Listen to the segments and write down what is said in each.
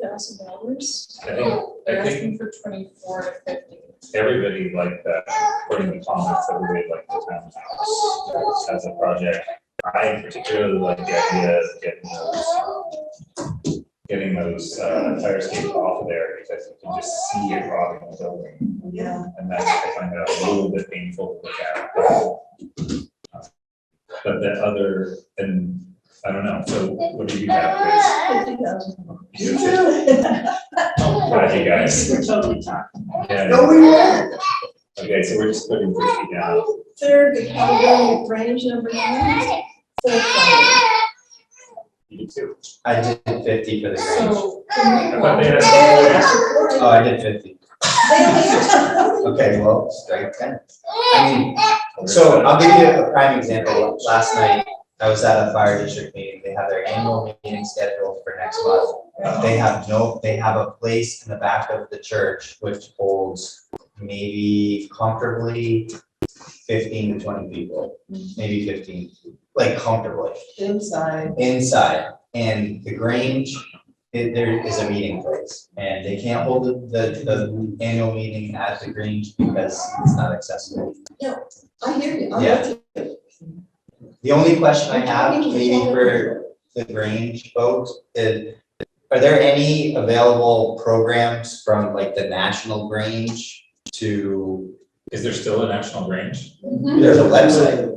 thousand dollars. I think, They're I think asking for twenty-four to fifty. everybody liked that, according to comments, everybody liked the townhouse as a project. I particularly like the idea of getting those, getting those, uh, fire escapes off of there, because you can just see it rotting the building. Yeah. And that's, I find that a little bit painful to look at. But the other, and, I don't know, so what do you have, Grace? Fifty thousand. You have to- What do you guys? We're totally talking. Yeah. No, we won't. Okay, so we're just putting fifty down. Third, the category range number nine. Fourth one. You too. I did fifty for the range. So. the new I one- thought they They asked. only asked for forty. Oh, I did fifty. They only asked for forty. Okay, well, strike ten. I mean, So I'll give you a prime example. Last night, I was at a fire district meeting. They have their annual meeting scheduled for next month. They have no, they have a place in the back of the church which holds maybe comfortably fifteen to twenty people, maybe fifteen, like comfortably Inside. inside. And the Grange, it- there is a meeting place. And they can't hold the, the, the annual meeting at the Grange because it's not accessible. I hear you. I'm Yeah. with you. The only question I have, maybe for the Grange folks, is, are there any available programs from like the National Grange to, Is there still a national range? there's a website,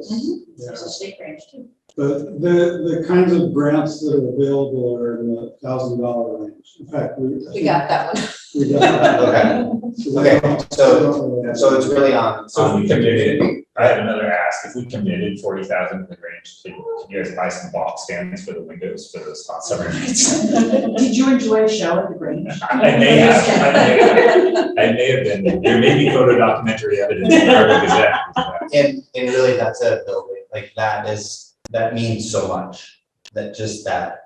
There's a state range too. But the, the kinds of grants that are available are in the thousand dollar range. In fact, we. We got that one. We got that. okay, So okay, so, that's- so it's really on, So if on we committed, I have another ask, if we committed forty thousand to the range, can can you guys buy some box stands for the windows for those hot summer nights? Did you enjoy a show at the Grange? I may have, I may have, I may have been, there may be photo documentary evidence. in the Harvard Gazette. And, and really, that's a building, like, that is, that means so much, that just that.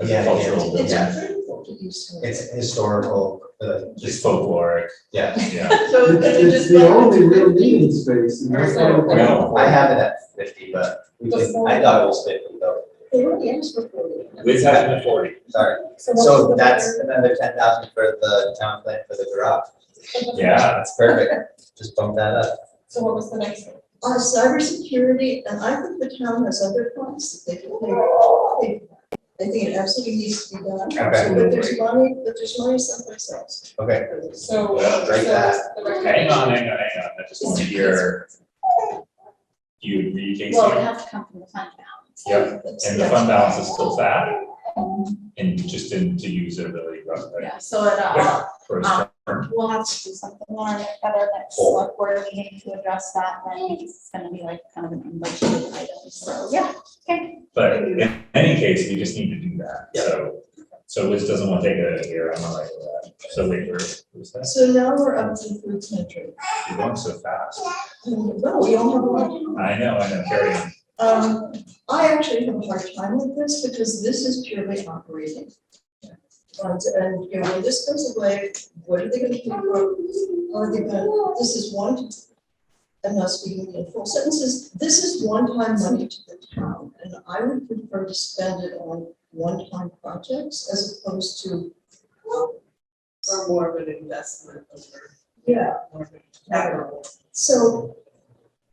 As Yeah, a yeah, cultural building, yeah. What did you say? It's historical, uh, just just, folkloric, yeah, yeah. So is It's it it's just the like- only real meeting space. and that's why we're- Well, I have it at fifty, but we can, I thought it was fifty though, They only asked for forty. Liz has it at forty. sorry. what's So the that's better- another ten thousand for the town plan for the garage. Yeah, That's perfect. Just bump that up. So what was the next one? On cybersecurity, and I think the town has other funds that they can pay. I think it absolutely needs to be done. So, But absolutely. there's money, but there's money someplace else. Okay. for this. So. Well, break so that. the recommendation- Hang on, hang on, hang on, I just want to hear. You, you, Casey? Well, it has to come from the fund balance. Yep, and the That's- fund balance is still fat, and just in to use it really rough, right? Yeah, so it, uh, For a Um, term. we'll have to do something more and at our next select board meeting to address that, and I think it's gonna be like kind of an unbudgeted item, so, yeah, okay. But in any case, we just need to do that, so, so Liz doesn't want to take it out of here, I'm all right with that. So wait, where, who's that? So now we're up to food pantry. You're going so fast. No, we don't have a lot. I know, I know, carry on. Um, I actually have a hard time with this because this is purely operating. And, and, you know, when this goes away, what are they gonna do? How Are they gonna, this is one, I'm not speaking in full sentences, this is one-time money to the town. And I would prefer to spend it on one-time projects as opposed to, Or more of an investment over yeah, more of a capital. So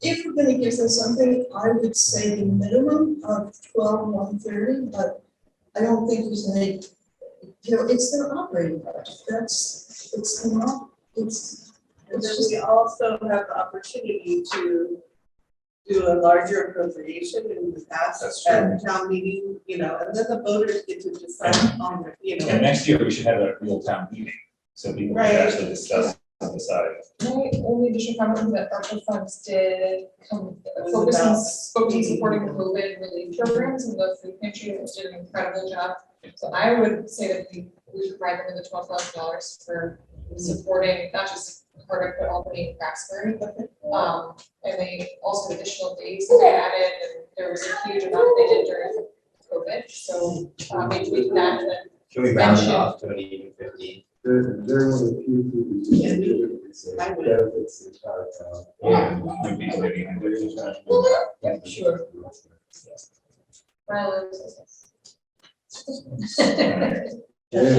if we're gonna give them something, I would say the minimum of twelve, one thirty, but I don't think there's any, you know, it's their operating budget, that's, it's not, it's, And then we also have the opportunity to do a larger appropriation in the That's past at town meeting, you know, and then the voters get to decide on, the, you And know. next year, we should have a real town meeting, so people can Right. actually discuss and decide. My only additional comment is that ARPA funds did come, was focus on, about- focus on supporting COVID relief programs and the food pantry, which did an incredible job. So I would say that we, we should provide them with the twelve thousand dollars for supporting, not just Hardwick, but Albany and Craftsbury. Um, and they also had additional days that they added, and there was a huge amount they did during COVID, so, um, maybe we can add that. Can we round it off to an even fifty? They're, they're one of the few who do Yeah, we- this. I would. Benefits the entire town. Yeah, we'd be living in a- Sure. Rylan, is this- All right. Yeah.